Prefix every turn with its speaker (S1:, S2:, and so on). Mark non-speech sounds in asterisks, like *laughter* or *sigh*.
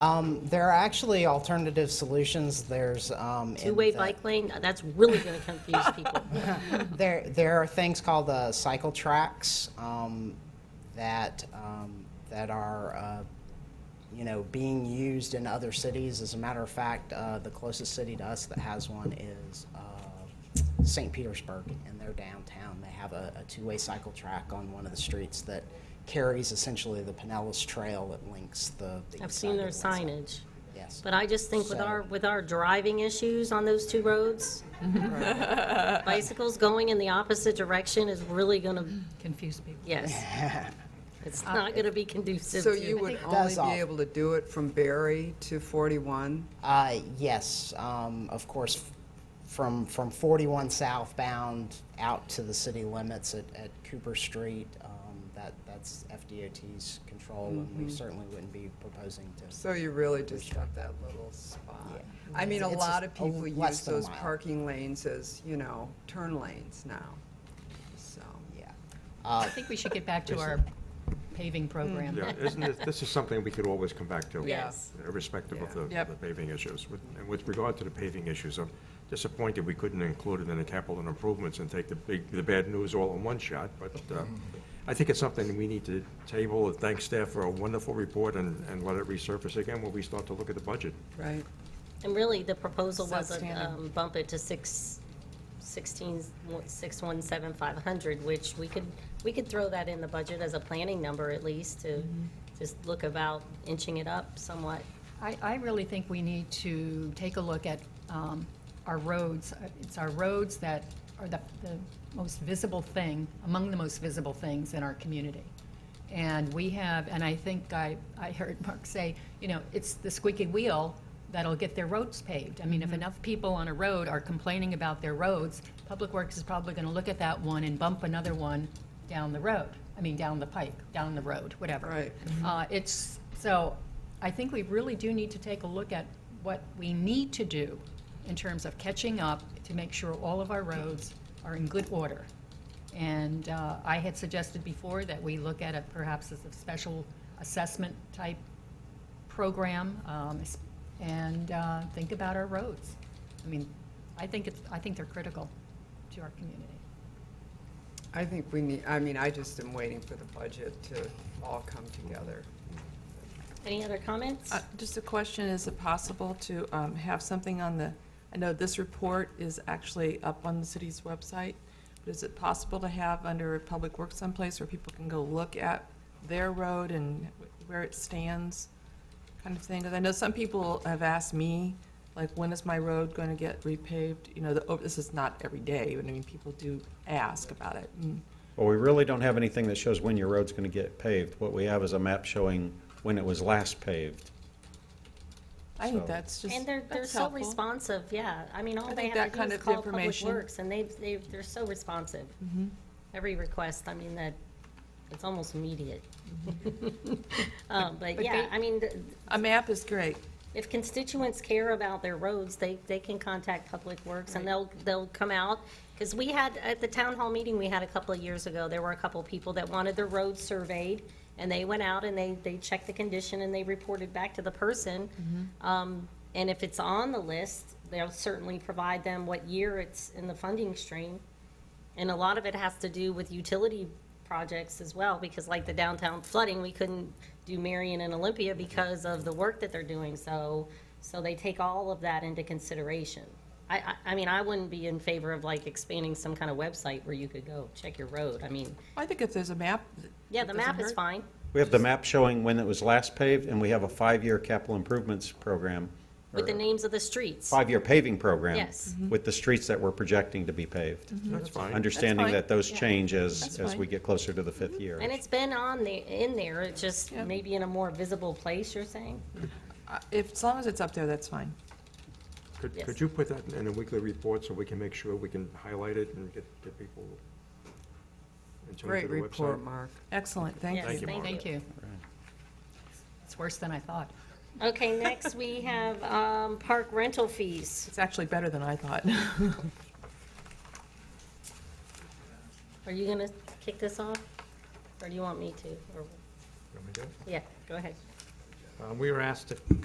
S1: Um, There are actually alternative solutions. There's. um, in
S2: Two-way
S1: the-
S2: bike lane, that's really going to confuse people.
S1: *laughs*
S2: *laughs*
S1: There, there are things called uh, cycle tracks um, that, um, that are, uh, you know, being used in other cities. As a matter of fact, uh, the closest city to us that has one is uh, St. Petersburg in their downtown. They have a, a two-way cycle track on one of the streets that carries essentially the Pinellas Trail that links the. the
S2: I've
S1: east side
S2: seen their
S1: to the west side.
S2: signage.
S1: Yes.
S2: But I just think with
S1: So-
S2: our, with our driving issues on those two roads, bicycles going in the opposite direction is really going to,
S3: confuse people.
S2: yes. It's not going to be conducive
S4: So you
S2: to,
S4: would
S1: does
S4: only
S1: all-
S4: be able to do it from Barry to 41?
S1: Uh, yes, um, of course, f- from, from 41 southbound out to the city limits at, at Cooper Street, um, that, that's FDOT's control, and we certainly wouldn't be proposing to.
S4: So you really just got that little spot. I mean, a
S1: It's
S4: lot
S1: just a
S4: of
S1: l-
S4: people
S1: less
S4: use
S1: than a
S4: those
S1: mile.
S4: parking lanes as, you know, turn lanes now, so.
S1: Yeah.
S3: I think we should get back to our paving program.
S5: Yeah, isn't this, this is something we could always come back to.
S2: Yes.
S5: Irrespective of the
S4: Yep.
S5: the paving issues. With- And with regard to the paving issues, I'm disappointed we couldn't include it in the capital improvements and take the big, the bad news all in one shot, but uh, I think it's something we need to table, and thank staff for a wonderful report and, and let it resurface again when we start to look at the budget.
S4: Right.
S2: and really, the proposal
S3: It's
S2: was a
S3: outstanding.
S2: um, bump it to six, sixteen, six one seven five hundred, which we could, we could throw that in the budget as a planning number at least to just look about inching it up somewhat.
S3: I, I really think we need to take a look at um, our roads. Uh, It's our roads that are the, the most visible thing, among the most visible things in our community. And we have, and I think I, I heard *laughs* Mark say, you know, it's the squeaky wheel that'll get their roads paved. I mean, if enough people on a road are complaining about their roads, Public Works is probably going to look at that one and bump another one down the road. I mean, down the pike, down the road, whatever.
S4: Right.
S3: Uh, It's, so I think we really do need to take a look at what we need to do in terms of catching up to make sure all of our roads are in good order. And uh, I had suggested before that we look at it perhaps as a special assessment type program um, s- and uh, think about our roads. I mean, I think it's, I think they're critical to our community.
S4: I think we need, I mean, I just am waiting for the budget to all come together.
S2: Any other comments?
S6: Uh, Just a question, is it possible to um, have something on the, I know this report is actually up on the city's website, but is it possible to have under Public Works someplace where people can go look at their road and where it stands, kind of thing? Because I know some people have asked me, like, when is my road going to get repaved? You know, the- oh, this is not every day, but I mean, people do ask about it. Mm.
S7: Well, we really don't have anything that shows when your road's going to get paved. What we have is a map showing when it was last paved.
S6: I think
S7: So-
S6: that's just,
S2: And they're, they're
S6: that's
S2: so
S6: helpful.
S2: responsive, yeah. I mean, all
S6: I
S2: they
S6: think
S2: have
S6: that
S2: to
S6: kind
S2: do is
S6: of
S2: call Public
S6: information- Mm-hmm.
S2: Works, and they've, they've, they're so responsive. Every request, I mean, that, it's almost immediate. *laughs*
S6: *laughs*
S2: Um, But
S6: Mm-hmm. But
S2: yeah,
S6: they-
S2: I mean, th-
S6: A map is great.
S2: if constituents care about their roads, they, they can contact Public Works, and they'll, they'll come out. Because we had, at the town hall meeting we had a couple of years ago, there were a couple of people that wanted their roads surveyed, and they went out and they, they checked the condition, and they reported back to the person.
S6: Mm-hmm.
S2: Um, And if it's on the list, they'll certainly provide them what year it's in the funding stream. And a lot of it has to do with utility projects as well, because like the downtown flooding, we couldn't do Marion and Olympia because of the work that they're doing, so, so they take all of that into consideration. I, I, I mean, I wouldn't be in favor of like expanding some kind of website where you could go check your road, I mean,
S6: I think if there's a map.
S2: yeah,
S6: it
S2: the
S6: doesn't
S2: map is
S6: hurt.
S2: fine,
S7: We have the map showing when it was last paved, and we have a five-year capital improvements program.
S2: with the
S7: or
S2: names of the streets.
S7: Five-year paving program.
S2: Yes.
S7: With the streets that we're projecting to be paved.
S5: That's fine.
S7: Understanding
S6: fine.
S7: that those change as,
S6: That's
S7: as
S6: fine.
S7: we get closer to the fifth year.
S2: And it's been on the, in there, it's just
S6: Yeah.
S2: maybe in a more visible place, you're saying?
S6: Uh, If, as long as it's up there, that's fine.
S5: Could,
S2: Yes.
S5: could you put that in a weekly report so we can make sure we can highlight it and get, get people? in terms of
S4: Great
S5: the website?
S4: report, Mark.
S6: Excellent, thank
S2: Yes,
S6: you.
S5: you, Mark.
S3: Thank you. It's worse than I thought.
S2: Okay, next we have, um, park rental fees.
S6: It's actually better than I thought. *laughs*
S2: Are you gonna kick this off? Or do you want me to? Or,
S5: Want me to do it?
S2: yeah, go ahead.
S5: Um, We were asked to